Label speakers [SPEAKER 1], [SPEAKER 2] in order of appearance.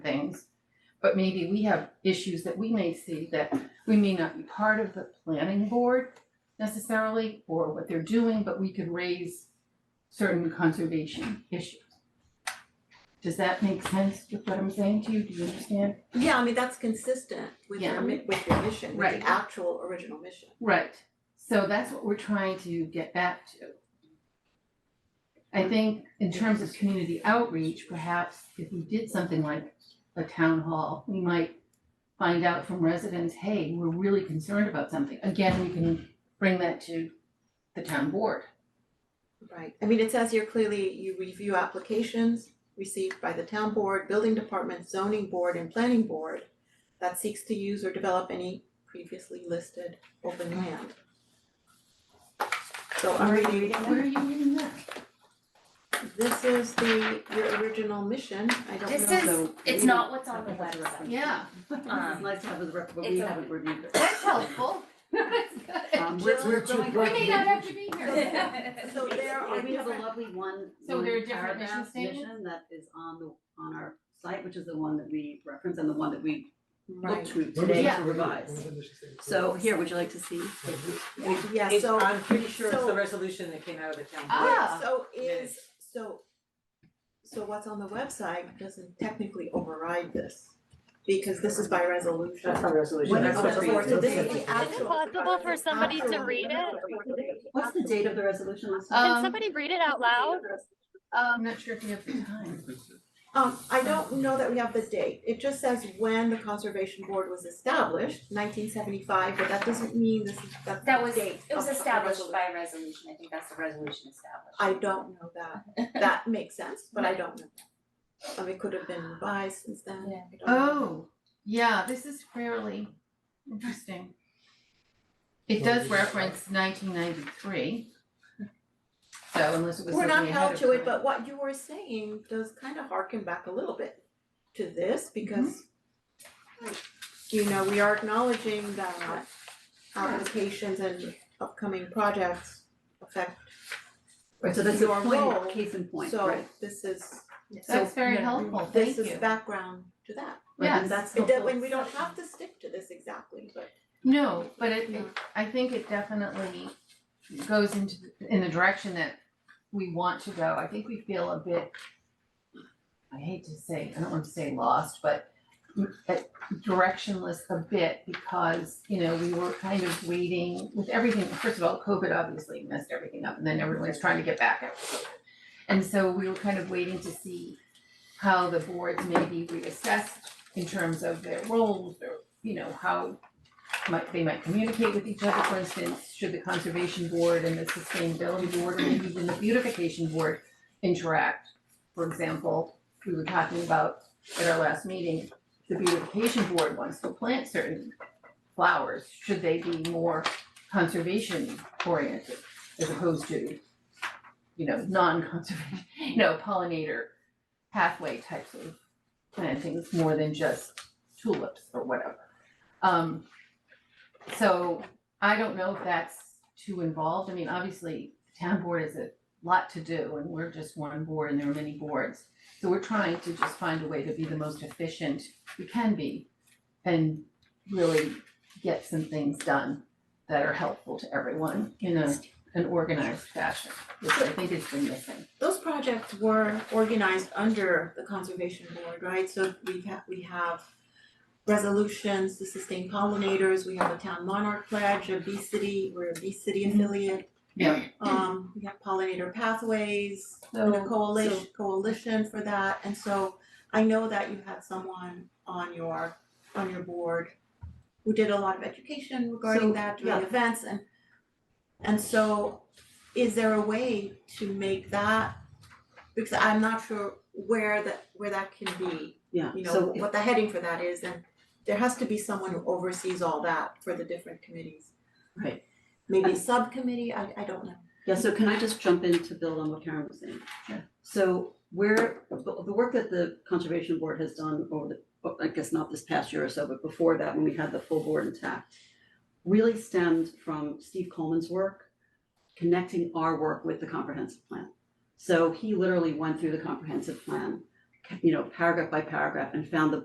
[SPEAKER 1] But maybe we have issues that we may see that we may not be part of the planning board necessarily or what they're doing, but we could raise certain conservation issues. Does that make sense with what I'm saying to you? Do you understand?
[SPEAKER 2] Yeah, I mean, that's consistent with
[SPEAKER 1] Yeah.
[SPEAKER 2] their mi- with their mission, with
[SPEAKER 1] Right.
[SPEAKER 2] the actual original mission.
[SPEAKER 1] Right, so that's what we're trying to get back to. I think in terms of community outreach, perhaps if we did something like a town hall, we might find out from residents, hey, we're really concerned about something. Again, we can bring that to the town board.
[SPEAKER 2] Right, I mean, it says here clearly, you review applications received by the town board, building department, zoning board, and planning board that seeks to use or develop any previously listed open land. So I'm reading
[SPEAKER 1] Where are you reading that?
[SPEAKER 2] This is the, your original mission, I don't know.
[SPEAKER 3] This is-
[SPEAKER 1] So
[SPEAKER 3] It's
[SPEAKER 1] we-
[SPEAKER 3] not what's on the website.
[SPEAKER 1] Yeah.
[SPEAKER 3] Um,
[SPEAKER 4] Let's have the record, but
[SPEAKER 3] it's
[SPEAKER 4] we
[SPEAKER 3] a-
[SPEAKER 4] haven't reviewed it.
[SPEAKER 3] That's helpful.
[SPEAKER 4] Um, we're-
[SPEAKER 3] Jill,
[SPEAKER 4] we're
[SPEAKER 3] is
[SPEAKER 4] too
[SPEAKER 3] going-
[SPEAKER 4] bright.
[SPEAKER 3] We may not have to be here.
[SPEAKER 2] So there are
[SPEAKER 4] We have a
[SPEAKER 2] different-
[SPEAKER 4] lovely one,
[SPEAKER 1] So
[SPEAKER 4] one
[SPEAKER 1] there are different mission
[SPEAKER 4] paragraph
[SPEAKER 1] statements?
[SPEAKER 4] mission that is on the, on our site, which is the one that we reference and the one that we look
[SPEAKER 2] Right,
[SPEAKER 4] to
[SPEAKER 5] When was
[SPEAKER 4] today
[SPEAKER 5] it
[SPEAKER 4] to
[SPEAKER 5] reviewed?
[SPEAKER 4] revise.
[SPEAKER 5] When was the mission statement
[SPEAKER 4] So
[SPEAKER 5] revised?
[SPEAKER 4] here, would you like to see?
[SPEAKER 2] yeah,
[SPEAKER 6] It's,
[SPEAKER 2] so,
[SPEAKER 6] I'm pretty sure it's
[SPEAKER 2] so-
[SPEAKER 6] the resolution that came out of the town board.
[SPEAKER 1] Ah.
[SPEAKER 2] so is,
[SPEAKER 6] Minutes.
[SPEAKER 2] so, so what's on the website doesn't technically override this, because this is by resolution.
[SPEAKER 6] That's our resolution,
[SPEAKER 4] What
[SPEAKER 6] that's
[SPEAKER 4] is
[SPEAKER 6] what's
[SPEAKER 4] the
[SPEAKER 6] read.
[SPEAKER 4] resolution?
[SPEAKER 2] So this is the
[SPEAKER 7] Is it
[SPEAKER 2] actual.
[SPEAKER 7] possible for somebody to
[SPEAKER 2] actual-
[SPEAKER 7] read it?
[SPEAKER 4] What's the date of the resolution last time?
[SPEAKER 1] Uh,
[SPEAKER 7] Can
[SPEAKER 1] Um,
[SPEAKER 7] somebody read it out loud?
[SPEAKER 1] I'm not sure if we have the time.
[SPEAKER 2] Um, I don't know that we have the date, it just says when the conservation board was established, nineteen seventy-five, but that doesn't mean this is, that's
[SPEAKER 3] That was,
[SPEAKER 2] the date.
[SPEAKER 3] it was
[SPEAKER 2] of- of
[SPEAKER 3] established
[SPEAKER 2] resolution.
[SPEAKER 3] by resolution, I think that's the resolution established.
[SPEAKER 2] I don't know that, that makes sense, but I don't know that. I mean, it could have been revised since then,
[SPEAKER 3] Yeah.
[SPEAKER 2] I don't know.
[SPEAKER 1] Oh, yeah, this is fairly interesting. It
[SPEAKER 5] Well,
[SPEAKER 1] does
[SPEAKER 5] we-
[SPEAKER 1] reference nineteen ninety-three. So unless it was
[SPEAKER 2] We're not
[SPEAKER 1] something ahead
[SPEAKER 2] held
[SPEAKER 1] of
[SPEAKER 2] to it,
[SPEAKER 1] time.
[SPEAKER 2] but what you were saying does kind of harken back a little bit to this
[SPEAKER 1] Mm-hmm.
[SPEAKER 2] because you know, we are acknowledging that applications and upcoming projects affect,
[SPEAKER 4] Right, so that's a
[SPEAKER 2] your role,
[SPEAKER 4] point, case in point,
[SPEAKER 2] so
[SPEAKER 4] right?
[SPEAKER 2] this is,
[SPEAKER 1] That's very
[SPEAKER 4] yeah,
[SPEAKER 1] helpful, thank
[SPEAKER 2] this is
[SPEAKER 1] you.
[SPEAKER 2] background to that.
[SPEAKER 4] Right,
[SPEAKER 1] yes.
[SPEAKER 4] and that's
[SPEAKER 2] It
[SPEAKER 4] helpful.
[SPEAKER 2] does, and we don't have to stick to this exactly, but
[SPEAKER 1] No, but it, it,
[SPEAKER 2] Yeah.
[SPEAKER 1] I think it definitely goes into, in the direction that we want to go. I think we feel a bit, I hate to say, I don't want to say lost, but m- uh, directionless a bit because, you know, we were kind of waiting with everything. First of all, COVID obviously messed everything up and then everyone's trying to get back after COVID. And so we were kind of waiting to see how the boards may be reassessed in terms of their roles, their, you know, how might, they might communicate with each other, for instance, should the conservation board and the sustainability board, or maybe even the beautification board interact? For example, we were talking about at our last meeting, the beautification board wants to plant certain flowers, should they be more conservation oriented as opposed to, you know, non-conservation, you know, pollinator pathway types of plantings more than just tulips or whatever. Um, so I don't know if that's too involved. I mean, obviously, the town board is a lot to do and we're just one board and there are many boards. So we're trying to just find a way to be the most efficient we can be and really get some things done that are helpful to everyone in a, an organized fashion, which I think has been missing.
[SPEAKER 2] those projects were organized under the conservation board, right? So we have, we have resolutions to sustain pollinators, we have a town monarch pledge, a bee city, we're a bee city affiliate.
[SPEAKER 1] Yeah.
[SPEAKER 2] Um, we have pollinator pathways, and a
[SPEAKER 1] So,
[SPEAKER 2] coalition, coalition for that, and so I know that you had someone on your, on your board who did a lot of education regarding
[SPEAKER 4] So,
[SPEAKER 2] that, doing events and and so is there a way to make that, because I'm not sure where that, where that can be,
[SPEAKER 4] Yeah,
[SPEAKER 2] you know,
[SPEAKER 4] so if-
[SPEAKER 2] what the heading for that is, and there has to be someone who oversees all that for the different committees.
[SPEAKER 4] Right.
[SPEAKER 2] Maybe
[SPEAKER 4] And-
[SPEAKER 2] subcommittee, I I don't know.
[SPEAKER 4] Yeah, so can I just jump in to build on what Karen was saying?
[SPEAKER 1] Sure.
[SPEAKER 4] So where, the the work that the Conservation Board has done over the, oh, I guess not this past year or so, but before that, when we had the full board intact, really stemmed from Steve Coleman's work, connecting our work with the comprehensive plan. So he literally went through the comprehensive plan, you know, paragraph by paragraph, and found the